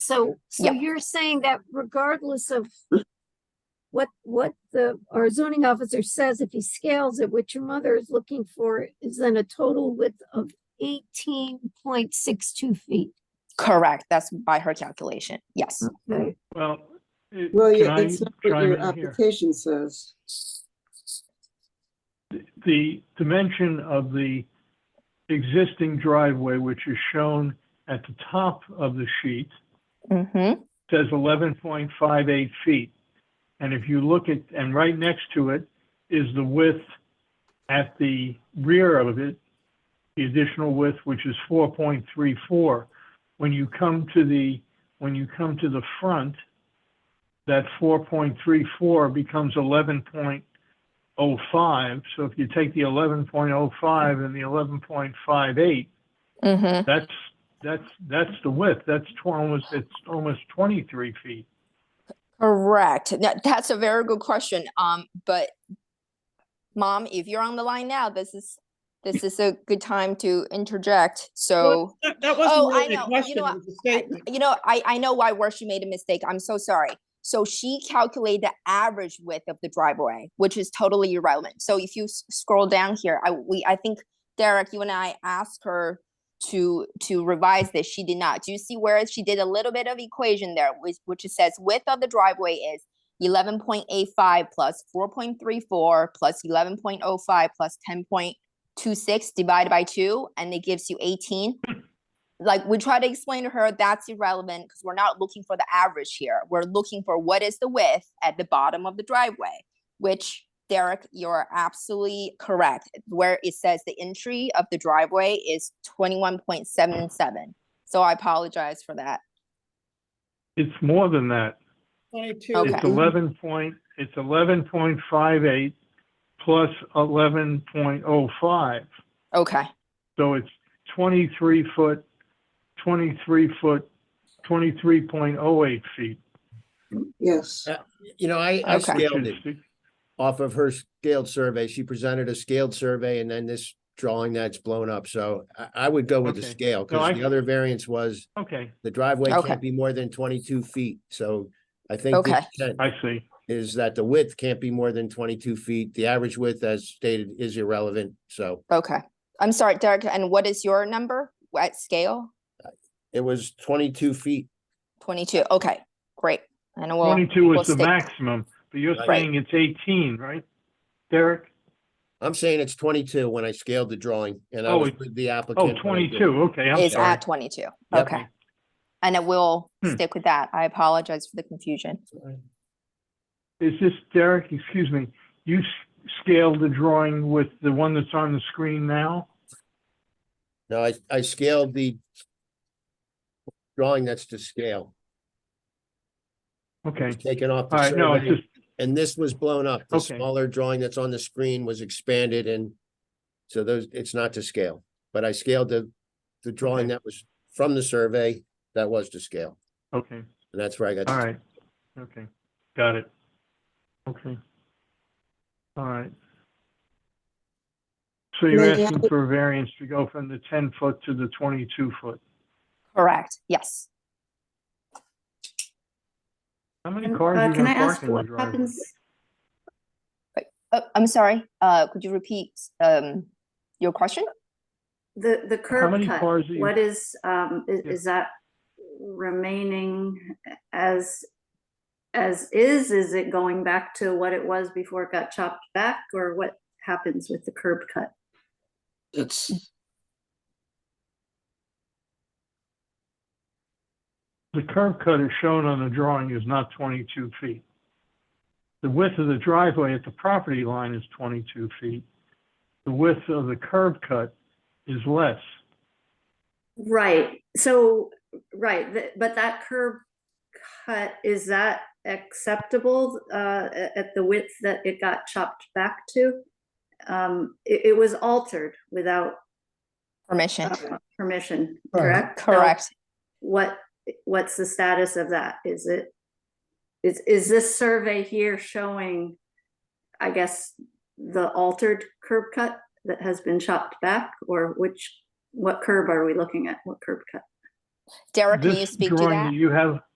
So, so Yep. you're saying that regardless of what, what the, our zoning officer says, if he scales it, what your mother is looking for is then a total width of eighteen point six two feet. Correct. That's by her calculation. Yes. Okay, Well. it- Well, can yeah, I that's not what chime your in here? application says. The dimension of the existing driveway, which is shown at the top of the sheet, Mm-hmm. says eleven point five eight feet. And if you look at, and right next to it is the width at the rear of it, the additional width, which is four point three four. When you come to the, when you come to the front, that four point three four becomes eleven point oh five. So if you take the eleven point oh five and the eleven point five eight, Mm-hmm. that's, that's, that's the width. That's tw- almost, it's almost 23 feet. Correct. Now, that's a very good question. Um, but mom, if you're on the line now, this is this is a good time to interject. So That that Oh, wasn't I really know. a You question, know it what? was a I- statement. you know, I I know why where she made a mistake. I'm so sorry. So she calculated the average width of the driveway, which is totally irrelevant. So if you s- scroll down here, I we I think Derek, you and I asked her to to revise this. She did not. Do you see where she did a little bit of equation there, which which it says width of the driveway is eleven point eight five plus four point three four plus eleven point oh five plus ten point two six divided by two, and it gives you eighteen. Like we try to explain to her that's irrelevant because we're not looking for the average here. We're looking for what is the width at the bottom of the driveway, which Derek, you're absolutely correct. Where it says the entry of the driveway is twenty-one point seven seven. So I apologize for that. It's more than that. Twenty-two. It's Okay. Mm-hmm. 11 point, it's 11.58 plus 11.05. Okay, So it's 23 foot, 23 foot, 23.08 feet. Yes. Uh, You know, I, Okay. I which scaled it is- off of her scaled survey. She presented a scaled survey and then this drawing that's blown up. So I, I would go with the Okay. scale I- because the other variance was Okay, the driveway Okay. can't be more than twenty-two feet. So I think the Okay. intent I see. is that the width can't be more than twenty-two feet. The average width as stated is irrelevant. So okay. I'm sorry, Derek, and what is your number at scale? it was twenty-two feet. Twenty-two, okay, great. And we'll. 22 we'll is the stick- maximum, but you're Right. saying it's 18, right? Derek? I'm saying it's twenty-two when I scaled the drawing and I Oh, was it- with the applicant. Oh, when I did 22, okay, I'm Is sorry. at twenty-two, Yep. okay. And it will Hmm. stick with that. I apologize for the confusion. it. Is this, Derek, excuse me, you s- scaled the drawing with the one that's on the screen now? No, I, I scaled the drawing that's to scale, Okay, taken off all the right, no, it's survey, just, and this was blown up. The Okay. smaller drawing that's on the screen was expanded and so those, it's not to scale, but I scaled the, the drawing Okay. that was from the survey that was to scale, okay, and that's where I got. all the- right, okay, got it. Okay. All right. So you're May I- asking for a variance to go from the ten foot to the twenty-two foot. Correct, yes. How many Um, cars uh, are you Can I gonna ask park in the what driveway? happens, Uh, I'm sorry, uh, could you repeat, um, your question? the, the curb many cut, cars that you- what is, um, i- Yeah. is that remaining as, as is, is it going back to what it was before it got chopped back, or what happens with the curb cut? It's, The curb cut is shown on the drawing is not twenty-two feet. The width of the driveway at the property line is twenty-two feet. The width of the curb cut is less. Right, so, right, th- but that curb cut, is that acceptable, uh, a- at the width that it got chopped back to? Um, it, it was altered without Permission, uh, permission, Correct. correct? So correct. What, what's the status of that? Is it, is, is this survey here showing, I guess, the altered curb cut that has been chopped back? Or which, what curb are we looking at? What curb cut? Derek, can This you speak to drawing that? You have,